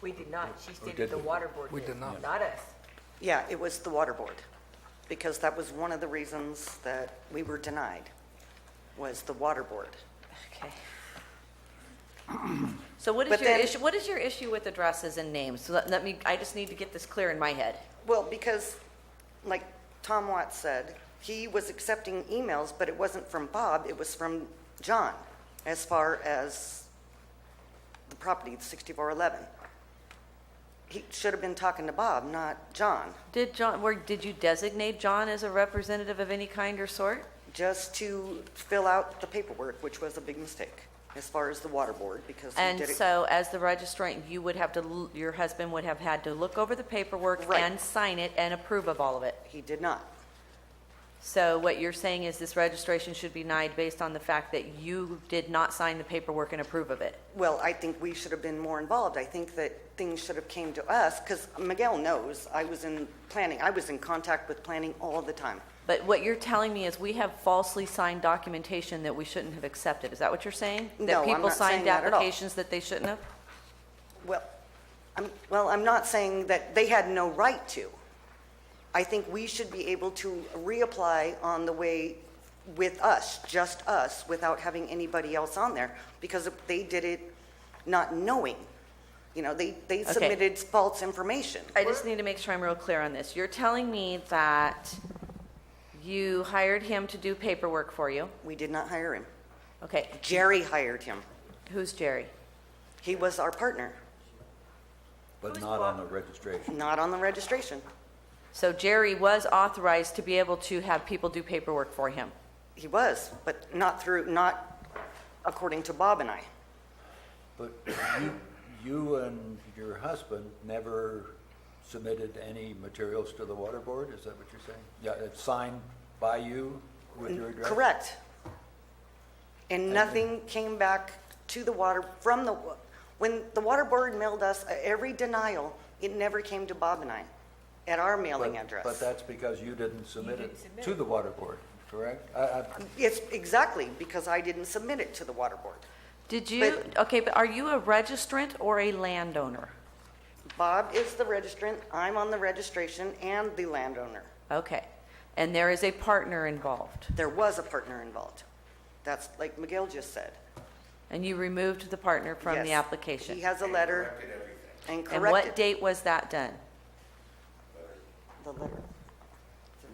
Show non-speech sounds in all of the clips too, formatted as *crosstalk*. We did not. She We stated the didn't. water board We did. did not. Not us. Yeah, it was the water board, because that was one of the reasons that we were denied, was the water board. Okay. *clears throat* So what is But your then- issue, what is your issue with addresses and names? So let- let me, I just need to get this clear in my head. Well, because, like Tom Watts said, he was accepting emails, but it wasn't from Bob, it was from John, as far as the property, the 6411. He should have been talking to Bob, not John, Did John, where, did you designate John as a representative of any kind or sort? just to fill out the paperwork, which was a big mistake, as far as the water board, because he did And it... so as the registrant, you would have to, l- your husband would have had to look over the paperwork Right. and sign it and approve of all of it. He did not. So what you're saying is this registration should be denied based on the fact that you did not sign the paperwork and approve of it? Well, I think we should have been more involved. I think that things should have came to us, because Miguel knows, I was in planning, I was in contact with planning all the time. But what you're telling me is we have falsely signed documentation that we shouldn't have accepted. Is that what you're saying? No, I'm people not signed saying that at all. applications that they shouldn't have? Well, I'm, well, I'm not saying that they had no right to. I think we should be able to reapply on the way with us, just us, without having anybody else on there, because they did it not knowing. You know, they, they Okay. submitted false information. I just need to make sure I'm real clear on this. You're telling me that you hired him to do paperwork for you? We did not hire him. Okay, Jerry hired him. who's Jerry? He was our partner, But not on the registration. not on the registration. So Jerry was authorized to be able to have people do paperwork for him? He was, but not through, not according to Bob and I. But you, you and your husband never submitted any materials to the water board, is that what you're saying? Yeah, it's signed by you with your address? Correct. And nothing came back to the water, from the, wa- when the water board mailed us every denial, it never came to Bob and I at our mailing But, but address. that's because you didn't submit it to the water board, correct? I, Um, I, It's exactly because I didn't submit it to the water board. Did you, okay, but are you a registrant or a landowner? Bob is the registrant, I'm on the registration and the landowner. Okay, and there is a partner involved? There was a partner involved. That's like Miguel just said. And you removed the partner from the Yes. application? He has a letter. And And what corrected date was that done? the letter.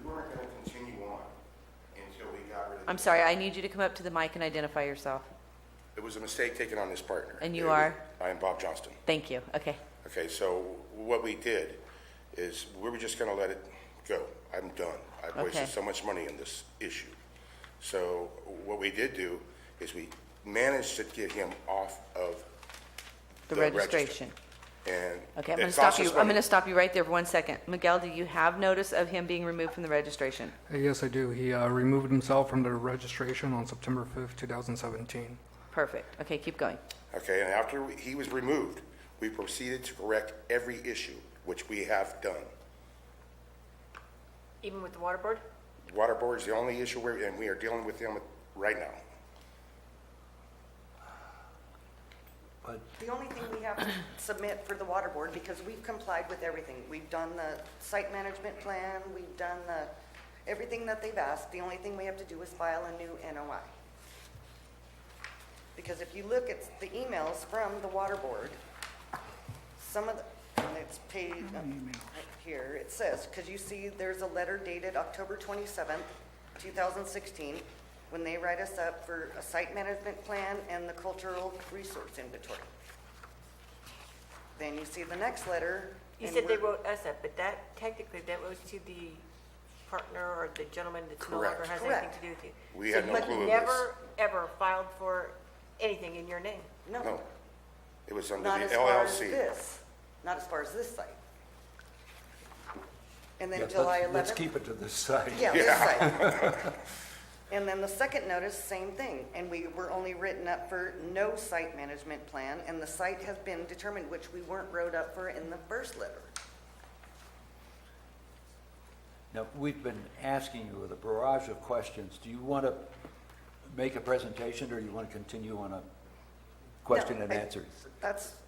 We weren't gonna continue on until we got rid of. the- I'm sorry, I need you to come up to the mic and identify yourself. It was a mistake taken on this partner. And you are? I am Bob Johnston. Thank you, okay. Okay, so what we did is, we were just gonna let it go. I'm done. I've Okay. wasted so much money on this issue. So what we did do is we managed to get him off of The the register. registration. And. Okay, I'm going it to cost stop you, us I'm going money. to stop you right there for one second. Miguel, do you have notice of him being removed from the registration? Yes, I do. He uh, removed himself from the registration on September 5th, 2017. Perfect, okay, keep going. Okay, and after we- he was removed, we proceeded to correct every issue, which we have done. Even with the water board? Water board's the only issue we're, and we are dealing with them right now. but The only thing we have to submit for the water board, because we've complied with everything. We've done the site management plan, we've done the, everything that they've asked. The only thing we have to do is file a new NOI. Because if you look at the emails from the water board, some of the, and it's page, uh, right here, it says, because you see there's a letter dated October 27th, 2016, when they write us up for a site management plan and the cultural resource inventory. Then you see the next letter. You and said they we're- wrote us up, but that technically, that was to the partner or the gentleman that no longer Correct. has anything Correct. to do with you. We So had no you clue of never, ever filed for anything in your name. No, it was under Not the as far as LLC. this, not as far as this site. yeah, And then let's- July 11th. Let's keep it to this side. Yeah, this site. And then the second notice, same thing, and we were only written up for no site management plan, and the site has been determined, which we weren't wrote up for in the first letter. Now, we've been asking you with a barrage of questions. Do you want to make a presentation, or you want to continue on a question and I- answer? That's